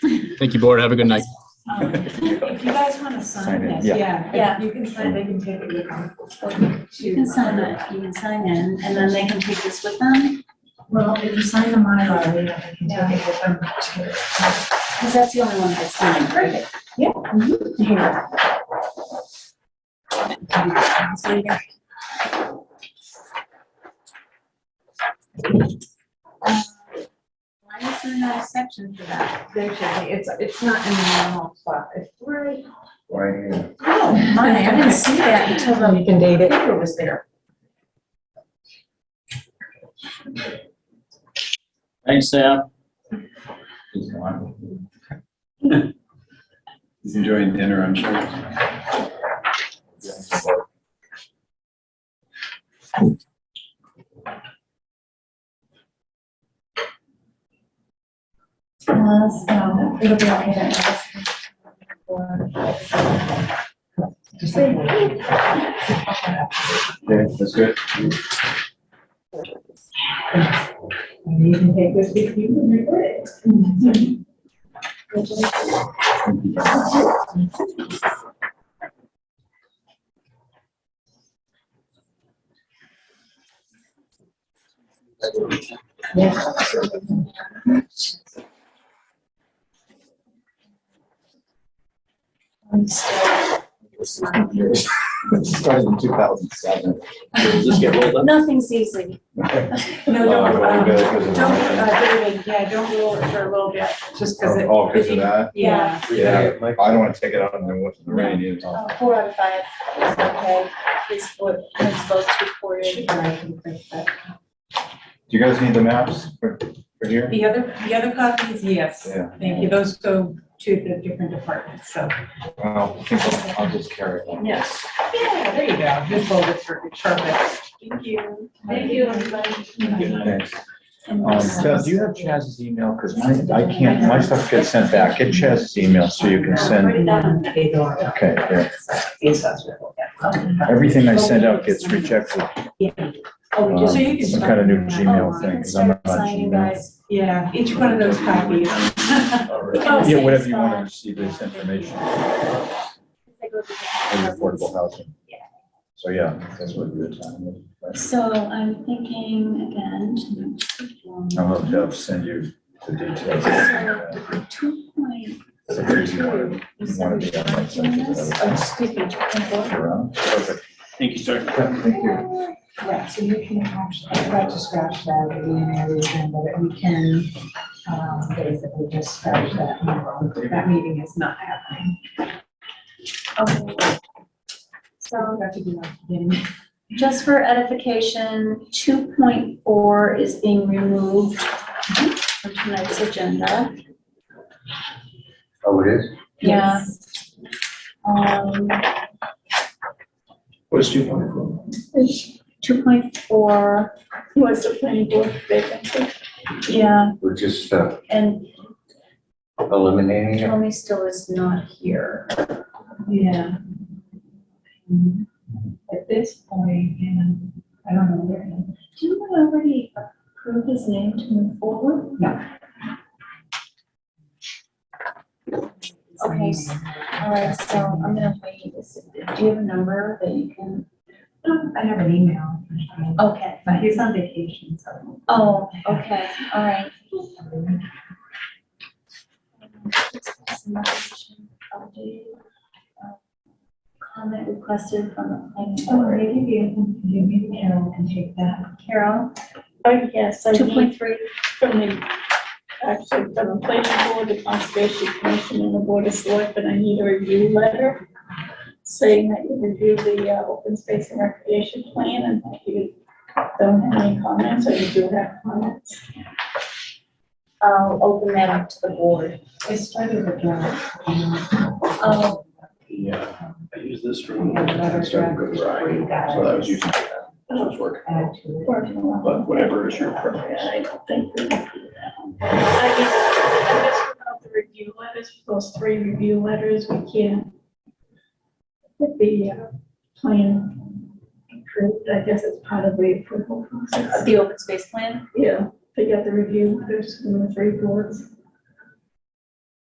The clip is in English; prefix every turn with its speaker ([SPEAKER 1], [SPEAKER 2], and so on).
[SPEAKER 1] Thank you, board. Have a good night.
[SPEAKER 2] Um, If you guys want to
[SPEAKER 3] Sign
[SPEAKER 2] sign
[SPEAKER 3] it,
[SPEAKER 2] this,
[SPEAKER 3] yeah.
[SPEAKER 2] yeah.
[SPEAKER 4] Yeah.
[SPEAKER 2] You can sign, they can take it. with them.
[SPEAKER 4] You can sign it, you can sign in, and then they can take this with them,
[SPEAKER 2] Well, if you sign the Mylar, we have to take it with them.
[SPEAKER 4] because that's the only one that's signed.
[SPEAKER 2] Perfect. Yeah. Here.
[SPEAKER 4] Why is there no section for that?
[SPEAKER 2] They should, be- it's, it's not in the normal spot. It's right.
[SPEAKER 3] Right here.
[SPEAKER 2] Oh,
[SPEAKER 4] My, I didn't see that until the
[SPEAKER 2] You can date it. Paper was there.
[SPEAKER 5] Thanks, Sam.
[SPEAKER 3] He's enjoying dinner, I'm sure.
[SPEAKER 4] Uh, so it'll be on here.
[SPEAKER 3] Okay, that's good.
[SPEAKER 2] You can take this with you and record it.
[SPEAKER 3] Started in two thousand seven.
[SPEAKER 5] Does this get rolled up?
[SPEAKER 4] Nothing's easy.
[SPEAKER 2] No, don't, um, don't,
[SPEAKER 3] Oh,
[SPEAKER 2] uh, David, yeah, don't roll it for a little bit, just because it.
[SPEAKER 3] because Oh, of that?
[SPEAKER 2] Yeah.
[SPEAKER 3] Yeah, I don't want to take it out and then what's the rain is on.
[SPEAKER 4] Uh, Four out of five is okay, is what is supposed to be reported.
[SPEAKER 3] Do you guys need the maps for, for here?
[SPEAKER 2] The other, the other copies, yes.
[SPEAKER 3] Yeah.
[SPEAKER 2] Thank you. Those go to the different departments, so.
[SPEAKER 3] Well, I think I'll- I'll just carry it.
[SPEAKER 2] Yes. Yeah, there you go. Good folder for Charlotte. Thank you.
[SPEAKER 4] Thank you, everybody.
[SPEAKER 3] Thanks. Um, Doug, do you have Chaz's email? Because I, I can't, my stuff gets sent back. Get Chaz's email so you can send, okay, here. Everything I send out gets rejected.
[SPEAKER 2] Oh, So
[SPEAKER 3] Um,
[SPEAKER 2] you can.
[SPEAKER 3] Some kind of new Gmail
[SPEAKER 4] I
[SPEAKER 3] thing,
[SPEAKER 4] can
[SPEAKER 3] 'cause I'm not
[SPEAKER 4] start
[SPEAKER 3] on
[SPEAKER 4] signing,
[SPEAKER 3] Gmail.
[SPEAKER 4] guys.
[SPEAKER 2] Yeah, each one of those copies.
[SPEAKER 4] Oh,
[SPEAKER 3] Yeah,
[SPEAKER 4] same
[SPEAKER 3] whatever you want to
[SPEAKER 4] spot.
[SPEAKER 3] receive this information,
[SPEAKER 4] They go to the-
[SPEAKER 3] in affordable housing.
[SPEAKER 4] Yeah.
[SPEAKER 3] So, yeah, that's what we're talking about.
[SPEAKER 4] So I'm thinking again.
[SPEAKER 3] I'll have to send you the details. Yeah,
[SPEAKER 4] Two point
[SPEAKER 3] It's a crazy one.
[SPEAKER 4] is
[SPEAKER 3] You want to be on my side, you
[SPEAKER 4] this?
[SPEAKER 3] gotta walk around. Perfect.
[SPEAKER 5] Thank you, sir.
[SPEAKER 3] Yeah, Thank you.
[SPEAKER 2] Yeah, so you can actually, I tried to scratch that at the end of the agenda, but we can, um, basically just scratch that. number. That meeting is not happening.
[SPEAKER 4] Okay. So
[SPEAKER 2] Got to do that again.
[SPEAKER 4] just for edification, two point four is being removed from tonight's agenda.
[SPEAKER 3] Oh, it is?
[SPEAKER 4] Yeah. Um,
[SPEAKER 3] What is two point four?
[SPEAKER 4] two point four was the planning board vacancy. Yeah,
[SPEAKER 6] We're just uh,
[SPEAKER 4] and
[SPEAKER 6] eliminating it.
[SPEAKER 4] Tommy still is not here.
[SPEAKER 2] Yeah. At this point, and I don't know where.
[SPEAKER 4] Do you already approve his name to move forward? Okay, s- all right, so I'm gonna wait. Is- Do you have a number that you can?
[SPEAKER 2] No, I have an email.
[SPEAKER 4] Okay.
[SPEAKER 2] But he's on vacation, so.
[SPEAKER 4] Oh, okay, all right. Comment requested from the planning board.
[SPEAKER 2] maybe, maybe Carol can take that.
[SPEAKER 4] Carol,
[SPEAKER 7] Oh, yes, I
[SPEAKER 4] two
[SPEAKER 7] need
[SPEAKER 4] point three.
[SPEAKER 7] from the, actually, from the planning board, the conservation commission, and the board of selectmen, I need a review letter saying that you review the uh, open space and recreation plan and that you don't have any comments, or you do have comments.
[SPEAKER 4] I'll open that up to the board.
[SPEAKER 2] I started with that.
[SPEAKER 4] Oh,
[SPEAKER 5] Yeah, I use this for.
[SPEAKER 2] Another
[SPEAKER 5] Started good
[SPEAKER 2] draft.
[SPEAKER 5] variety, So I was using that. That was working,
[SPEAKER 2] Add to it.
[SPEAKER 5] but whatever is your preference.
[SPEAKER 7] I don't think we can do that. I guess, I guess without the review letters, those three review letters, we can't get the uh, plan approved. I guess it's part of the approval process.
[SPEAKER 4] the open space plan?
[SPEAKER 7] Yeah, they got the review letters from the three boards.